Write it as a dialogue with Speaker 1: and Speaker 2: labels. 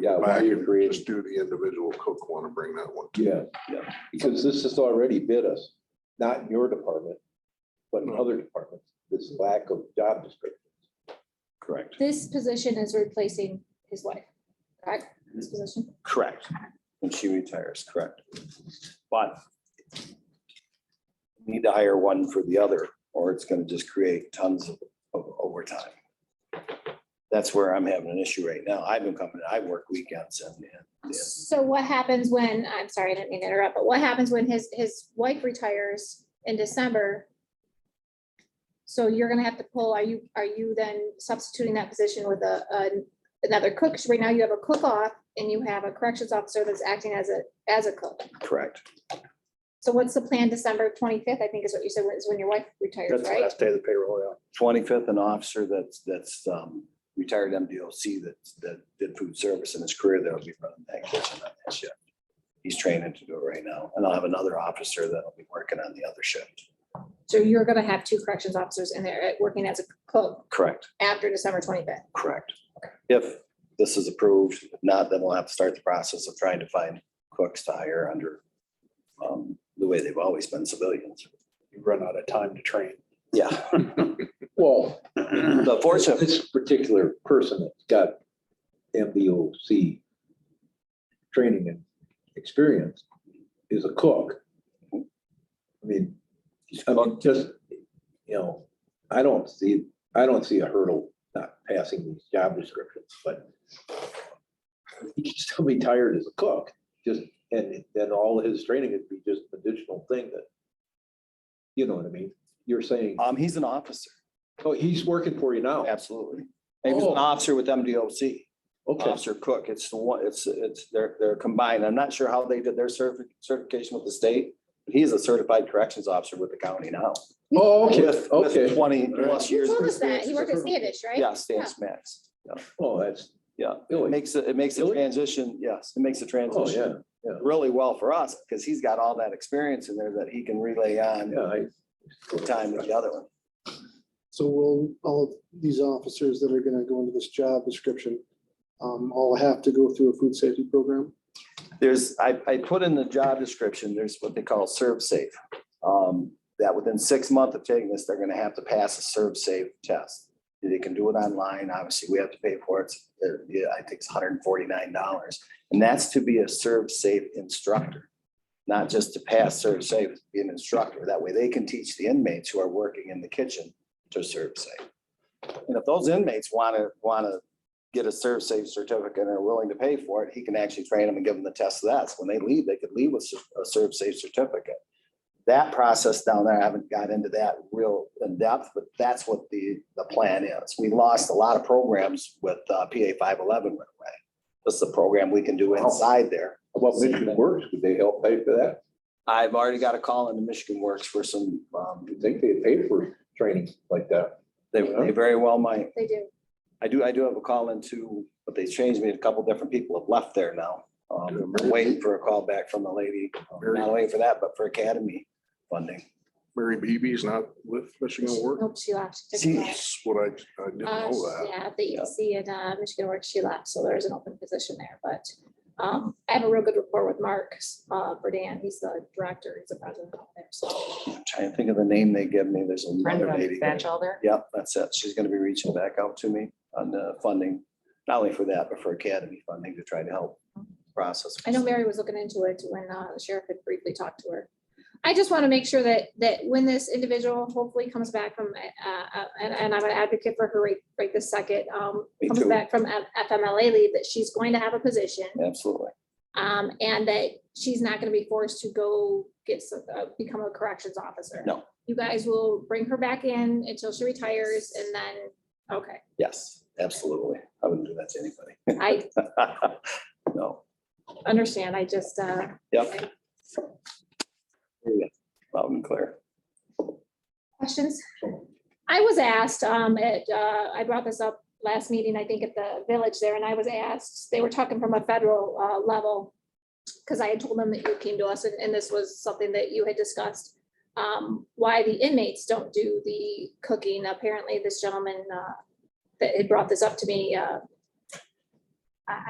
Speaker 1: Yeah,
Speaker 2: go
Speaker 1: why
Speaker 2: back
Speaker 1: you're
Speaker 2: and
Speaker 1: creating-
Speaker 2: just do the individual cook want to bring that one. to-
Speaker 1: Yeah, yeah, because this has already bit us, not in your department, but in other departments, this lack of job descriptions.
Speaker 3: Correct.
Speaker 4: This position is replacing his wife, correct? This position?
Speaker 3: Correct. When she retires, correct. But need to hire one for the other, or it's gonna just create tons of of overtime. That's where I'm having an issue right now. I've been coming, I work weekends and, and
Speaker 4: So what happens when, I'm sorry, I didn't mean to interrupt, but what happens when his, his wife retires in December? So you're gonna have to pull, are you, are you then substituting that position with a, an- another cook? 'Cause Right now you have a cook-off and you have a corrections officer that's acting as a, as a cook.
Speaker 3: correct.
Speaker 4: So what's the plan December twenty-fifth, I think is what you said, is when your wife retires,
Speaker 5: That's the
Speaker 4: right?
Speaker 5: last day of the payroll, yeah.
Speaker 3: Twenty-fifth, an officer that's, that's um, retired MDOC that, that did food service in his career, that'll be running that kitchen on that shift. He's training to do it right now, and I'll have another officer that'll be working on the other shift.
Speaker 4: So you're gonna have two corrections officers in there uh, working as a cook
Speaker 3: Correct.
Speaker 4: after December twenty-fifth.
Speaker 3: Correct. If this is approved, if not, then we'll have to start the process of trying to find cooks to hire under um, the way they've always been civilians.
Speaker 5: You run out of time to train.
Speaker 3: Yeah,
Speaker 1: Well,
Speaker 3: the fortunate,
Speaker 1: this particular person that's got MBOC training and experience is a cook. I mean, I mean, just, you know, I don't see, I don't see a hurdle not passing these job descriptions, but he can still be tired as a cook, just, and then all his training would be just an additional thing that, you know what I mean? You're saying,
Speaker 3: um, he's an officer,
Speaker 1: oh, he's working for you now.
Speaker 3: absolutely. He was an
Speaker 1: Oh.
Speaker 3: officer with MDOC,
Speaker 1: Okay.
Speaker 3: officer cook. It's the one, it's, it's, they're, they're combined. I'm not sure how they did their certi- certification with the state. but He's a certified corrections officer with the county now.
Speaker 1: Oh, okay,
Speaker 3: With- with
Speaker 1: okay.
Speaker 3: Twenty plus
Speaker 4: He
Speaker 3: years.
Speaker 4: told
Speaker 3: of
Speaker 4: us that, he
Speaker 3: experience.
Speaker 4: worked at Standish, right?
Speaker 3: Yeah, Stan Smacks. Yeah.
Speaker 1: Oh, that's. oh,
Speaker 3: Yeah,
Speaker 1: Really?
Speaker 3: it makes, it it makes a
Speaker 1: Really?
Speaker 3: transition, yes, it makes a
Speaker 1: Oh, yeah,
Speaker 3: transition really well for us, because he's got all that experience in there that he can relay on
Speaker 1: yeah. I-
Speaker 3: the time with the other one.
Speaker 6: So will all of these officers that are gonna go into this job description, um, all have to go through a food safety program?
Speaker 3: There's, I, I put in the job description, there's what they call serve safe. Um, that within six months of taking this, they're gonna have to pass a serve safe test. They can do it online, obviously, we have to pay for it, It's, uh, yeah, I think it's hundred and forty-nine dollars. And that's to be a serve safe instructor, not just to pass serve safe, be an instructor, that way they can teach the inmates who are working in the kitchen to serve safe. And if those inmates wanna, wanna get a serve safe certificate and are willing to pay for it, he can actually train them and give them the test of that. So when they leave, they could leave with a serve safe certificate. That process down there, I haven't got into that real in depth, but that's what the, the plan is. We lost a lot of programs with uh, PA five eleven went away. This is a program we can do inside there.
Speaker 1: About Mission Works, would they help pay for that?
Speaker 3: I've already got a call into Michigan Works for some, um,
Speaker 1: You'd think they'd pay for training like that.
Speaker 3: they, they very well might.
Speaker 4: They do.
Speaker 3: I do, I do have a call into, but they changed me. A couple different people have left there now. Um, we're waiting for a call back from a lady, Um, not only for that, but for academy funding.
Speaker 2: Mary Beebe's not with Michigan Work.
Speaker 4: Nope, she left. She took
Speaker 3: See,
Speaker 4: it back.
Speaker 2: That's what I, I didn't
Speaker 4: Uh,
Speaker 2: know that.
Speaker 4: Yeah, the EC and uh, Michigan Works, she left, so there's an open position there, but um, I have a real good rapport with Mark uh, Burdan. He's the director, he's the president out there, so.
Speaker 3: I'm Trying to think of the name they give me. There's another
Speaker 7: Brenda
Speaker 3: lady. there.
Speaker 7: Batchelder.
Speaker 3: Yep, that's it. She's gonna be reaching back out to me on the funding, not only for that, but for academy funding to try to help process.
Speaker 4: I know Mary was looking into it when uh, the sheriff had briefly talked to her. I just want to make sure that, that when this individual hopefully comes back from, uh, uh, and, and I'm an advocate for her right, right this second, um,
Speaker 3: Me
Speaker 4: comes
Speaker 3: too.
Speaker 4: back from F- FMLA leave, that she's going to have a position.
Speaker 3: Absolutely.
Speaker 4: Um, and that she's not gonna be forced to go get some, uh, become a corrections officer.
Speaker 3: No.
Speaker 4: You guys will bring her back in until she retires and then, okay,
Speaker 3: Yes, absolutely. I wouldn't do that to
Speaker 4: I
Speaker 3: anybody. No.
Speaker 4: understand, I just, uh,
Speaker 3: Yep. Loud and clear.
Speaker 4: questions? I was asked, um, at, uh, I brought this up last meeting, I think at the village there, and I was asked, they were talking from a federal, uh, level. Cause I had told them that you came to us and, and this was something that you had discussed, um, why the inmates don't do the cooking. Apparently this gentleman, uh, that had brought this up to me, uh,